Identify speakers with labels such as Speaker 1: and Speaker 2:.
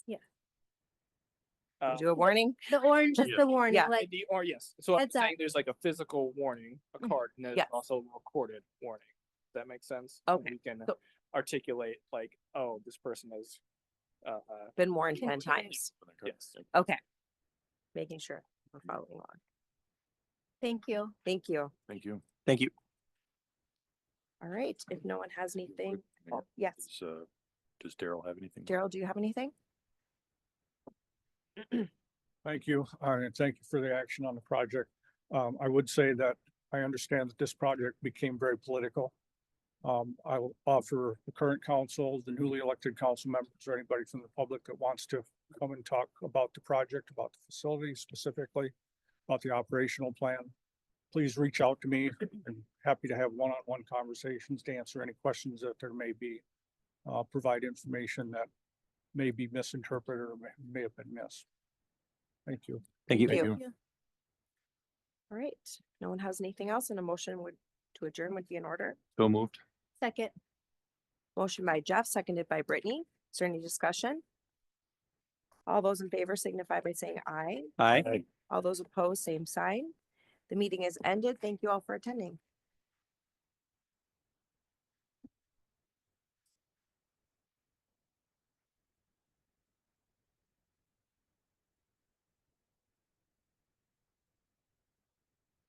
Speaker 1: Uh,
Speaker 2: Do a warning?
Speaker 3: The orange is
Speaker 4: Yeah.
Speaker 3: the warning,
Speaker 2: Yeah.
Speaker 3: like,
Speaker 1: The, or yes, so I'm
Speaker 3: Heads up.
Speaker 1: saying there's like a physical warning, a
Speaker 2: Mhm.
Speaker 1: card, and then
Speaker 2: Yeah.
Speaker 1: there's also a recorded warning. Does that make sense? And
Speaker 2: Okay,
Speaker 1: We can
Speaker 2: so-
Speaker 1: articulate like, oh, this person is, uh, uh,
Speaker 2: Been warned
Speaker 1: Yeah.
Speaker 2: ten times,
Speaker 1: yes.
Speaker 2: okay. Making sure we're following along.
Speaker 3: thank you.
Speaker 2: Thank you.
Speaker 4: Thank you.
Speaker 5: Thank you.
Speaker 2: All right, if no one has
Speaker 4: Real quick,
Speaker 2: anything, oh,
Speaker 4: Mayor,
Speaker 2: yes,
Speaker 4: does, uh, Does Daryl have anything?
Speaker 2: Daryl, do you have anything?
Speaker 6: Thank you, uh, and thank you for the action on the project. Um, I would say that I understand that this project became very political. Um, I will offer the current council, the newly elected council members, or anybody from the public that wants to come and talk about the project, about the facility specifically, about the operational plan. Please reach out to me. I'm happy to have one-on-one conversations to answer any questions that there may be. Uh, provide information that may be misinterpreted or may- may have been missed. Thank you.
Speaker 5: Thank you.
Speaker 2: Thank
Speaker 4: you.
Speaker 2: All right, no one has anything else and a motion would, to adjourn would be in order.
Speaker 4: So moved.
Speaker 3: Second,
Speaker 2: Motion by Jeff, seconded by Brittany. Is there any discussion? All those in favor signify by saying aye.
Speaker 5: Aye.
Speaker 2: All those opposed, same sign. The meeting is ended. Thank you all for attending.